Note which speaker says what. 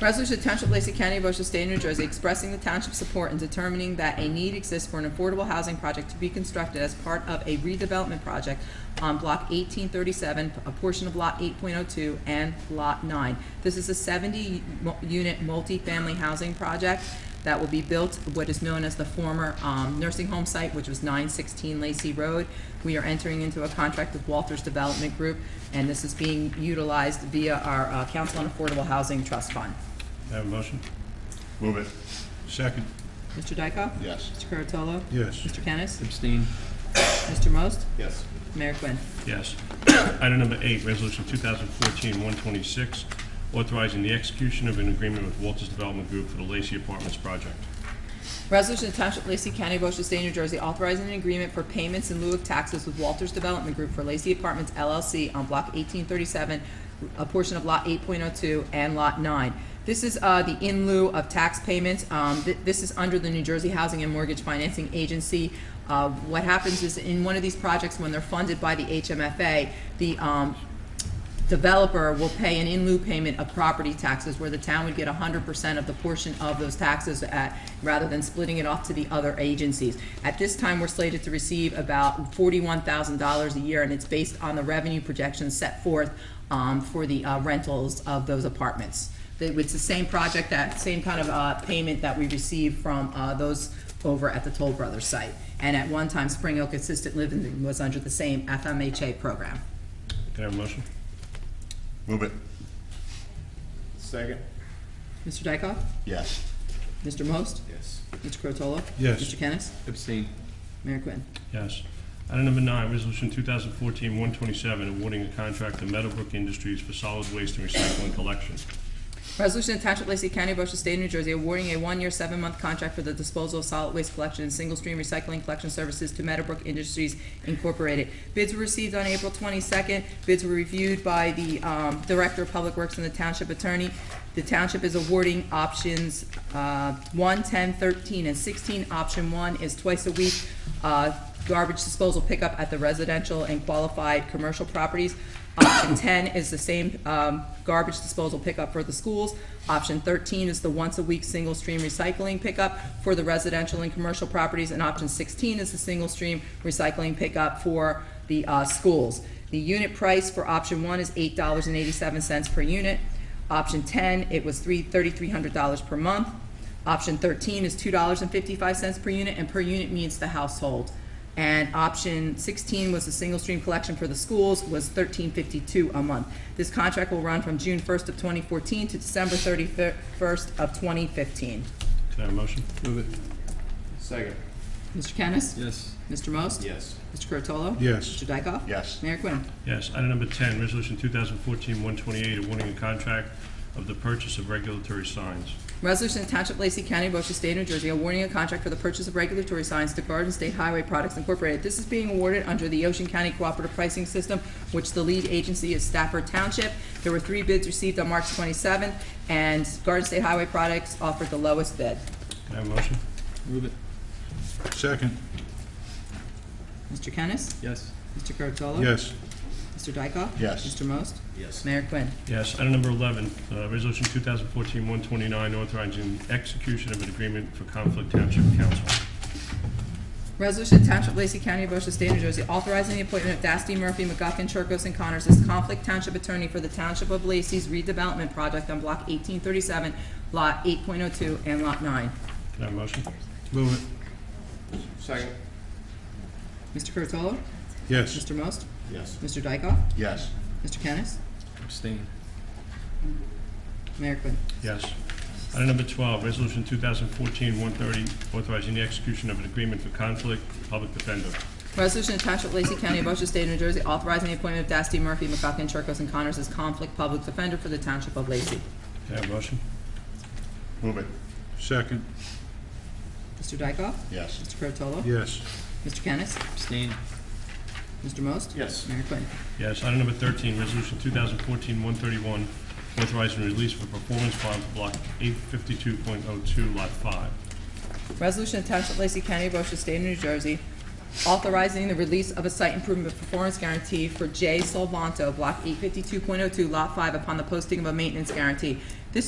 Speaker 1: Resolution to Township of Lacey County, Ocean State, New Jersey, expressing the township's support in determining that a need exists for an affordable housing project to be constructed as part of a redevelopment project on Block 1837, a portion of Lot 8.02 and Lot 9. This is a 70-unit multifamily housing project that will be built, what is known as the former um, nursing home site, which was 916 Lacey Road. We are entering into a contract with Walters Development Group, and this is being utilized via our uh, Council on Affordable Housing Trust Fund.
Speaker 2: I have a motion?
Speaker 3: Move it.
Speaker 2: Second?
Speaker 1: Mr. Dykoff?
Speaker 3: Yes.
Speaker 1: Mr. Curatolo?
Speaker 2: Yes.
Speaker 1: Mr. Kennis?
Speaker 4: abstain,
Speaker 1: Mr. Most?
Speaker 3: Yes.
Speaker 1: Mayor Quinn.
Speaker 2: Yes. Item number eight, resolution 2014-126, authorizing the execution of an agreement with Walters Development Group for the Lacey Apartments project.
Speaker 1: Resolution to Township of Lacey County, Ocean State, New Jersey, authorizing an agreement for payments in lieu of taxes with Walters Development Group for Lacey Apartments LLC on Block 1837, a portion of Lot 8.02 and Lot 9. This is uh, the in lieu of tax payments. Um, th- This is under the New Jersey Housing and Mortgage Financing Agency. Uh, What happens is, in one of these projects, when they're funded by the HMFA, the um, developer will pay an in lieu payment of property taxes, where the town would get hundred percent of the portion of those taxes at, rather than splitting it off to the other agencies. At this time, we're slated to receive about forty-one thousand dollars a year, and it's based on the revenue projections set forth, um, for the uh, rentals of those apartments. They- It's the same project, that same kind of, uh, payment that we received from, uh, those over at the Toll Brothers site. And at one time, Spring Oak Assisted Living was under the same FMHA program.
Speaker 2: Can I have a motion?
Speaker 3: Move it. Second.
Speaker 1: Mr. Dykoff?
Speaker 3: Yes.
Speaker 1: Mr. Most?
Speaker 3: Yes.
Speaker 1: Mr. Curatolo?
Speaker 2: Yes.
Speaker 1: Mr. Kennis?
Speaker 4: abstain,
Speaker 1: Mayor Quinn.
Speaker 2: Yes. Item number nine, resolution 2014-127, awarding a contract to Meadowbrook Industries for solid waste and recycling collection.
Speaker 1: Resolution to Township of Lacey County, Ocean State, New Jersey, awarding a one-year, seven-month contract for the disposal of solid waste collection and single-stream recycling collection services to Meadowbrook Industries Incorporated. Bids were received on April twenty-second. Bids were reviewed by the um, Director of Public Works and the Township Attorney. The township is awarding options uh, 1, 10, 13, and sixteen. Option one is twice a week uh, garbage disposal pickup at the residential and qualified commercial properties. Option 10 is the same um, garbage disposal pickup for the schools. Option 13 is the once-a-week single-stream recycling pickup for the residential and commercial properties. And option 16 is the single-stream recycling pickup for the uh, schools. The unit price for option 1 is $8.87 per unit. Option 10, it was three thirty-three hundred dollars per month. Option 13 is $2.55 per unit, and per unit means the household. And option 16 was the single stream collection for the schools was 13.52 a month. This contract will run from June 1st of 2014 to December 31st of 2015.
Speaker 2: Can I have a motion?
Speaker 4: move it,
Speaker 3: Second.
Speaker 1: Mr. Kennis?
Speaker 4: yes,
Speaker 1: Mr. Most?
Speaker 3: Yes.
Speaker 1: Mr. Curatolo?
Speaker 2: Yes.
Speaker 1: Mr. Dykoff?
Speaker 3: Yes.
Speaker 1: Mayor Quinn.
Speaker 2: Yes. Item number 10, resolution 2014-128, awarding a contract of the purchase of regulatory signs.
Speaker 1: Resolution to Township of Lacey County, Ocean State, New Jersey, awarding a contract for the purchase of regulatory signs to Garden State Highway Products Incorporated. This is being awarded under the Ocean County Cooperative Pricing System, which the lead agency is Stafford Township. There were three bids received on March 27th, and Garden State Highway Products offered the lowest bid.
Speaker 2: Can I have a motion?
Speaker 4: move it,
Speaker 2: Second.
Speaker 1: Mr. Kennis?
Speaker 4: yes,
Speaker 1: Mr. Curatolo?
Speaker 2: Yes.
Speaker 1: Mr. Dykoff?
Speaker 3: Yes.
Speaker 1: Mr. Most?
Speaker 3: Yes.
Speaker 1: Mayor Quinn.
Speaker 2: Yes. Item number 11, uh, Resolution 2014-129, authorizing execution of an agreement for Conflict Township Council.
Speaker 1: Resolution to Township of Lacey County, Ocean State, New Jersey, authorizing the appointment of Dasty Murphy, McGuckin, Chirkos, and Connors as conflict township attorney for the Township of Lacey's redevelopment project on Block 1837, Lot 8.02, and Lot 9.
Speaker 2: Can I have a motion?
Speaker 4: move it,
Speaker 3: Second.
Speaker 1: Mr. Curatolo?
Speaker 2: Yes.
Speaker 1: Mr. Most?
Speaker 3: Yes.
Speaker 1: Mr. Dykoff?
Speaker 3: Yes.
Speaker 1: Mr. Kennis?
Speaker 4: abstain,
Speaker 1: Mayor Quinn.
Speaker 2: Yes. Item number 12, Resolution 2014-130, authorizing the execution of an agreement for Conflict Public Defender.
Speaker 1: Resolution to Township of Lacey County, Ocean State, New Jersey, authorizing the appointment of Dasty Murphy, McGuckin, Chirkos, and Connors as conflict public defender for the Township of Lacey.
Speaker 2: Can I have a motion?
Speaker 3: Move it.
Speaker 2: Second.
Speaker 1: Mr. Dykoff?
Speaker 3: Yes.
Speaker 1: Mr. Curatolo?
Speaker 2: Yes.
Speaker 1: Mr. Kennis?
Speaker 4: abstain,
Speaker 1: Mr. Most?
Speaker 3: Yes.
Speaker 1: Mayor Quinn.
Speaker 2: Yes. Item number 13, Resolution 2014-131, authorizing release of a performance bond for Block 852.02, Lot 5.
Speaker 1: Resolution of Township of Lacey County, Ocean State, New Jersey, authorizing the release of a site improvement performance guarantee oh for J. Solvanto, Block 852.02, Lot 5, upon the posting of a maintenance guarantee. This